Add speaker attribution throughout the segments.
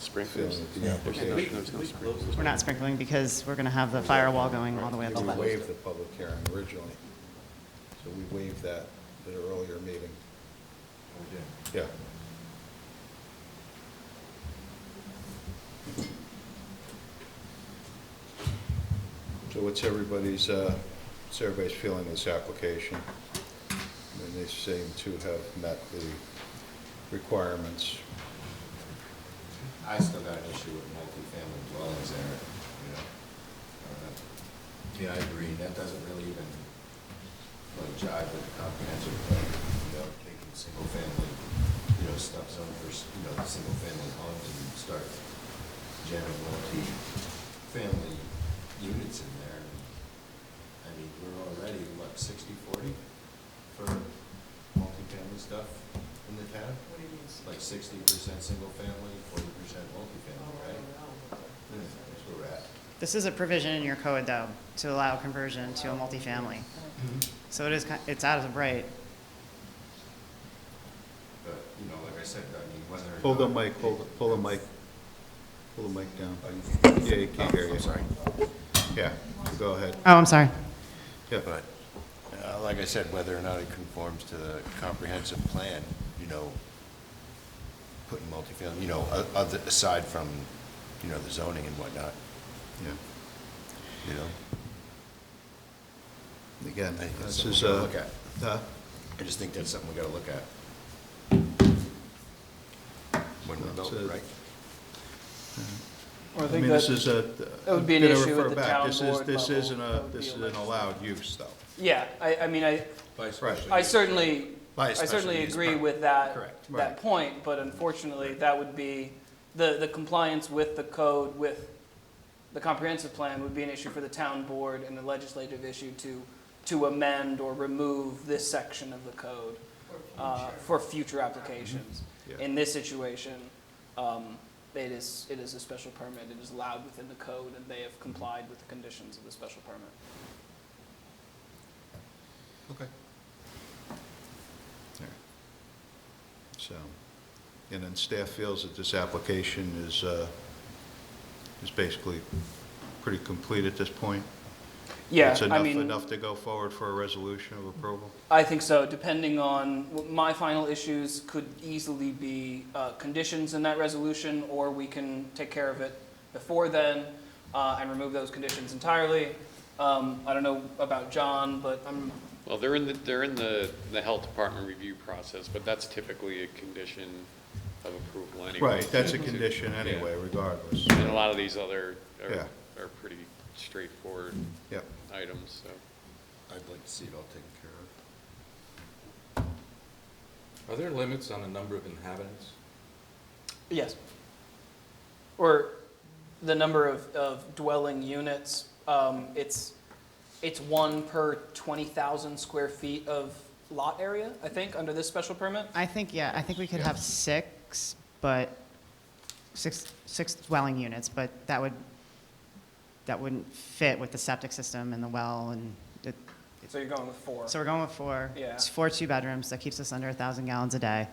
Speaker 1: Sprinklers.
Speaker 2: We-
Speaker 1: um, Application.
Speaker 2: we close
Speaker 3: We're not sprinkling because we're going to have the firewall going all the way up
Speaker 1: We
Speaker 3: the way.
Speaker 1: waived the public hearing originally, so we waived that at an earlier meeting. We did? Yeah. So what's everybody's, uh, what's everybody's feeling this application? And they seem to have met the requirements.
Speaker 4: I still got an issue with multifamily dwellings there, you know. Uh, Yeah, I agree, that doesn't really even, like, jive with the comprehensive plan, you know, taking single-family, you know, stuff zone for, s- you know, single-family homes and start generating multi-family units in there. I mean, we're already, what, sixty-forty for multifamily stuff in the town? It's like sixty percent single family, forty percent multifamily, right? That's where we're at.
Speaker 3: This is a provision in your code, though, to allow conversion to a multifamily. So it is, ki- it's out of the right.
Speaker 4: But, you know, like I said, I mean, whether. or
Speaker 1: Pull the
Speaker 4: not-
Speaker 1: mic, hold, the- pull the mic, pull the mic down. Yeah, you can't hear you.
Speaker 4: I'm sorry.
Speaker 1: Yeah, go ahead.
Speaker 3: Oh, I'm sorry.
Speaker 1: Yeah,
Speaker 4: But, uh, like I said, whether or not it conforms to the comprehensive plan, you know, putting multifamily, you know, o- other, aside from, you know, the zoning and whatnot,
Speaker 1: yeah.
Speaker 4: you know?
Speaker 1: Again,
Speaker 4: I think that's
Speaker 1: this is
Speaker 4: something
Speaker 1: a,
Speaker 4: we gotta look
Speaker 1: huh?
Speaker 4: I just think that's something we gotta look at. When we
Speaker 1: That's
Speaker 4: vote,
Speaker 1: it.
Speaker 4: right?
Speaker 1: I
Speaker 5: Well, I
Speaker 1: mean,
Speaker 5: think
Speaker 1: this
Speaker 5: that,
Speaker 1: is a.
Speaker 5: that would be an
Speaker 1: bit of
Speaker 5: issue at
Speaker 1: refer
Speaker 5: the
Speaker 1: back.
Speaker 5: town
Speaker 1: This is-
Speaker 5: board
Speaker 1: This
Speaker 5: level.
Speaker 1: isn't
Speaker 5: That
Speaker 1: a,
Speaker 5: would be
Speaker 1: this is an
Speaker 5: allowed.
Speaker 1: allowed use, though.
Speaker 5: yeah, I, I mean, I, I certainly,
Speaker 1: By
Speaker 5: I
Speaker 1: special
Speaker 5: certainly
Speaker 1: use
Speaker 5: agree
Speaker 1: permit.
Speaker 5: with that,
Speaker 1: Correct. Right.
Speaker 5: that point, but unfortunately, that would be, the, the compliance with the code, with the comprehensive plan would be an issue for the town board and a legislative issue to, to amend or remove this section of the code uh, for future applications.
Speaker 1: Mm-hmm. Yeah.
Speaker 5: In this situation, um, it is, it is a special permit, it is allowed within the code, and they have complied with the conditions of the special permit.
Speaker 1: Okay. So, and then staff feels that this application is, uh, is basically pretty complete at this point?
Speaker 5: Yeah,
Speaker 1: It's
Speaker 5: I
Speaker 1: enough,
Speaker 5: mean.
Speaker 1: enough to go forward for a resolution of approval?
Speaker 5: I think so, depending on, my final issues could easily be uh, conditions in that resolution, or we can take care of it before then uh, and remove those conditions entirely. Um, I don't know about John, but I'm,
Speaker 6: Well, they're in the, they're in the, the health department review process, but that's typically a condition of approval anyway.
Speaker 1: Right, that's a
Speaker 6: To-
Speaker 1: condition
Speaker 6: yeah.
Speaker 1: anyway, regardless.
Speaker 6: And a lot of these other
Speaker 1: Yeah.
Speaker 6: are, are pretty straightforward
Speaker 1: Yep.
Speaker 6: items, so.
Speaker 4: I'd like to see it all taken care of.
Speaker 2: Are there limits on the number of inhabitants?
Speaker 5: yes. Or the number of, of dwelling units, um, it's, it's one per 20,000 square feet of lot area, I think, under this special permit.
Speaker 3: I think, yeah, I think we could have six, but, six, six dwelling units, but that would, that wouldn't fit with the septic system and the well and it,
Speaker 5: So you're going with four.
Speaker 3: So we're going with four.
Speaker 5: Yeah.
Speaker 3: It's four two-bedrooms, that keeps us under 1,000 gallons a day.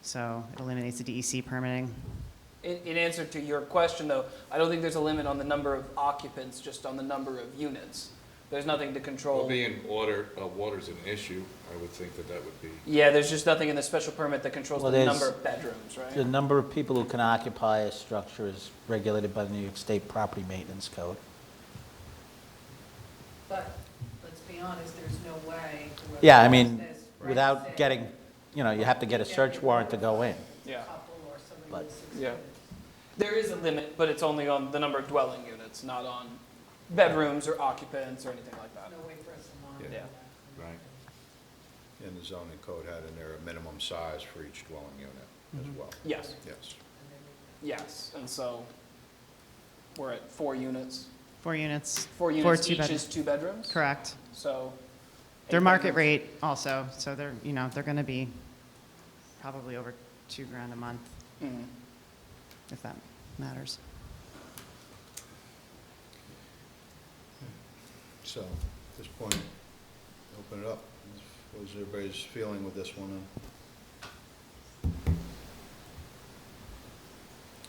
Speaker 3: So it eliminates the DEC permitting.
Speaker 5: In, in answer to your question, though, I don't think there's a limit on the number of occupants, just on the number of units. There's nothing to
Speaker 2: Well,
Speaker 5: control.
Speaker 2: being water, uh, water's an issue, I would think that that would be.
Speaker 5: Yeah, there's just nothing in the special permit that controls
Speaker 7: Well,
Speaker 5: the
Speaker 7: there's-
Speaker 5: number of bedrooms,
Speaker 7: The
Speaker 5: right?
Speaker 7: number of people who can occupy a structure is regulated by the New York State Property Maintenance Code.
Speaker 8: But, let's be honest, there's no way. whoever
Speaker 7: Yeah, I mean,
Speaker 8: does this right
Speaker 7: without
Speaker 8: six,
Speaker 7: getting, you know, you have to get a search warrant to go in.
Speaker 5: Yeah.
Speaker 8: Couple or somebody
Speaker 7: But-
Speaker 8: with six
Speaker 5: Yeah.
Speaker 8: kids.
Speaker 5: There is a limit, but it's only on the number of dwelling units, not on bedrooms or occupants or anything like that.
Speaker 8: No way for us to monitor
Speaker 5: Yeah.
Speaker 8: that.
Speaker 2: Right.
Speaker 1: And the zoning code had in there a minimum size for each dwelling unit as well.
Speaker 5: Mm-hmm. Yes,
Speaker 1: Yes.
Speaker 8: And then we-
Speaker 5: yes, and so we're at four units.
Speaker 3: Four units.
Speaker 5: Four units
Speaker 3: two
Speaker 5: each
Speaker 3: bed-
Speaker 5: is two bedrooms?
Speaker 3: Correct.
Speaker 5: So.
Speaker 3: They're
Speaker 5: eight
Speaker 3: market
Speaker 5: bedrooms.
Speaker 3: rate also, so they're, you know, they're going to be probably over two grand a month,
Speaker 5: Mhm.
Speaker 3: if that matters.
Speaker 1: So, at this point, open it up. What was everybody's feeling with this one? uh,